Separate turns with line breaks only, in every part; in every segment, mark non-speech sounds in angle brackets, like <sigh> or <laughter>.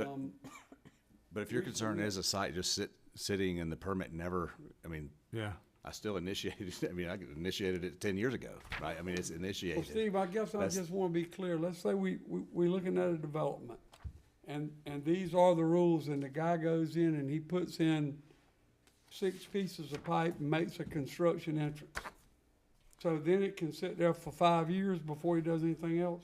Um,
But if your concern is a site just sit, sitting and the permit never, I mean,
Yeah.
I still initiated, <laughs> I mean, I initiated it ten years ago, right? I mean, it's
Well,
initiated.
Steve, I guess I
That's-
just want to be clear. Let's say we, we, we're looking at a development and, and these are the rules and the guy goes in and he puts in six pieces of pipe and makes a construction entrance. So then it can sit there for five years before he does anything else,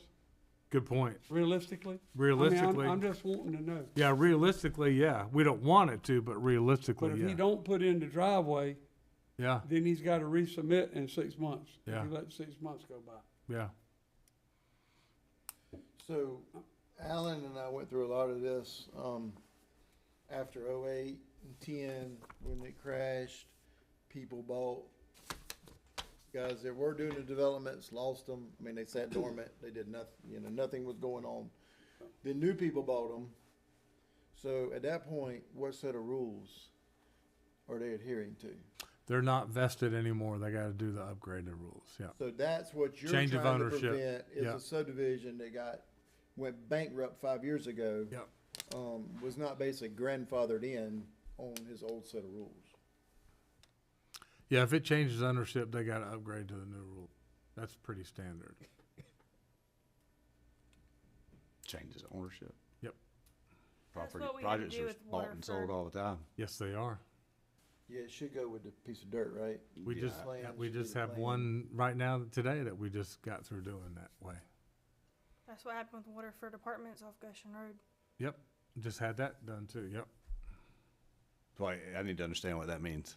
Good point.
realistically? I mean, I'm-
Realistically, Oh,
I'm just wanting to know.
yeah, realistically, yeah. We don't want it to, but
But
realistically,
if
yeah.
he don't put in the driveway,
yeah,
then he's got to resubmit in six months. If
Yeah.
he lets six months go by.
yeah.
So Alan and I went through a lot of this, um, after 08 and 10 when it crashed. People bought, guys that were doing the developments, lost them. I mean, they sat dormant. They did nothing, you know, nothing was going on. Then new people bought them. So at that point, what set of rules are they adhering to?
They're not vested anymore. They got to do the upgraded rules. Yeah.
So that's what you're
Change of
trying to
ownership.
prevent is
Yeah.
a subdivision that got went bankrupt five years ago.
Yep.
Um, was not basically grandfathered in on his old set of rules.
Yeah. If it changes ownership, they got to upgrade to the new rule. That's pretty standard.
Changes of ownership.
Yep.
That's
Property,
what we had to
projects
do
are
with
bought and sold
Waterford.
all the time.
Yes, they are.
Yeah, it should go with the piece of dirt, right?
We
Yeah.
just
Plan
we
should be
just
the
have
plan.
one right now today that we just got through doing that way.
That's what happened with Waterford Apartments off Goshen Road.
Yep. Just had that done too. Yep.
So I, I need to understand what that means.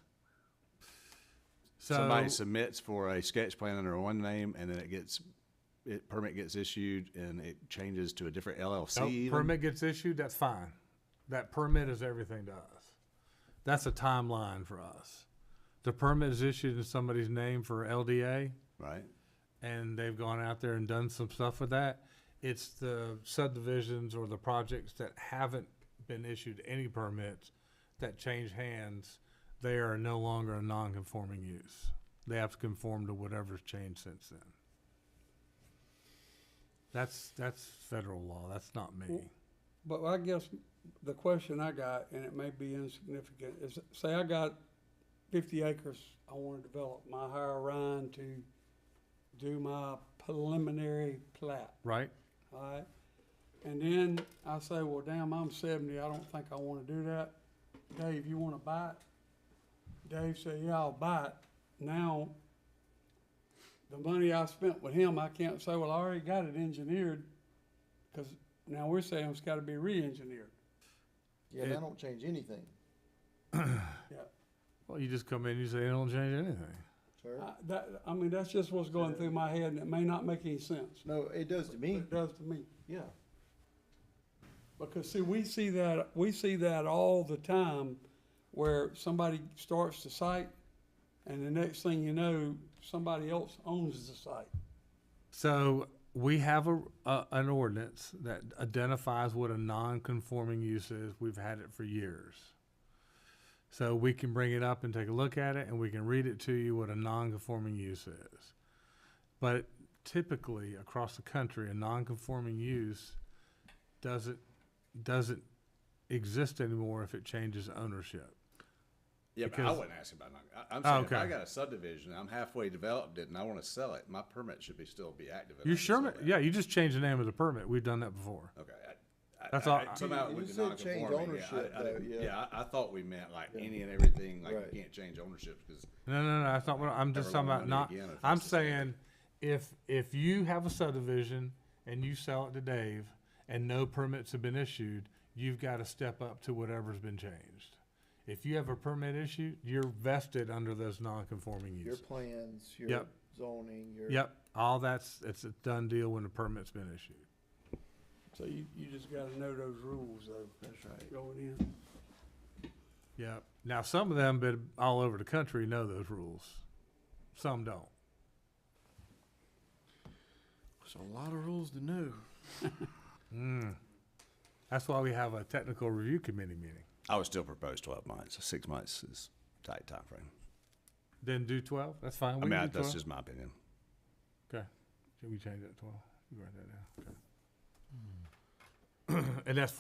So
Somebody submits for a sketch plan under one name and then it gets, it, permit gets issued and it changes to a different LLC
Nope,
even.
permit gets issued, that's fine. That permit is everything to us. That's a timeline for us. The permit is issued in somebody's name for LDA,
Right?
and they've gone out there and done some stuff with that. It's the subdivisions or the projects that haven't been issued any permits that change hands. They are no longer a non-conforming use. They have to conform to whatever's changed since then. That's, that's federal law. That's not me.
But I guess the question I got, and it may be insignificant, is say I got fifty acres I wanna develop, my hire Ryan to do my preliminary plat,
right?
alright? And then I say, well, damn, I'm seventy, I don't think I wanna do that. Dave, you wanna buy it? Dave said, yeah, I'll buy it. Now, the money I spent with him, I can't say, well, I already got it engineered, cause now we're saying it's gotta be re-engineered.
Yeah, and I don't change anything,
Yeah,
Well, you just come in, you say, it don't change anything.
sir.
I, that, I mean, that's just what's going through my head, and it may not make any sense,
No, it does to
but
me.
it does to me.
Yeah.
Because see, we see that, we see that all the time, where somebody starts the site, and the next thing you know, somebody else owns the site.
So we have a, a an ordinance that identifies what a non-conforming use is. We've had it for years. So we can bring it up and take a look at it, and we can read it to you what a non-conforming use is. But typically, across the country, a non-conforming use doesn't doesn't exist anymore if it changes ownership.
Yeah, but I
Because-
wouldn't ask about, non- I, I'm
Oh,
saying if
okay.
I got a subdivision, I'm halfway developed it and I wanna sell it, my permit should be, still be active. and I
You
can
sure?
sell that.
Yeah, you just change the name of the permit. We've done that before.
Okay. I- I-
That's
I-
all-
I- Somehow it
You
was
said change
non-conforming, yeah,
ownership,
I- I didn't-
though, yeah.
Yeah, I, I thought we meant like any and everything, like
Right.
you can't change ownership because,
No, no, no, that's not what, I'm just
Never
talking
loan
about
money
not,
again if
I'm
that's the standard.
saying, if, if you have a subdivision and you sell it to Dave and no permits have been issued, you've gotta step up to whatever's been changed. If you have a permit issue, you're vested under those non-conforming
Your
uses.
plans, your
Yep.
zoning, your.
Yep, all that's, it's a done deal when the permit's been issued.
So you, you just gotta know those rules though,
That's right.
going in.
Yep, now some of them, been all over the country know those rules, some don't.
There's a lot of rules to know.
Mm. That's why we have a technical review committee meeting.
I would still propose twelve months. Six months is tight timeframe.
Then do twelve, that's fine.
I
we
mean,
can
I-
do
that's
12.
just my opinion.
Okay. Should we change that to twelve? You write that down, okay. <clears throat> And that's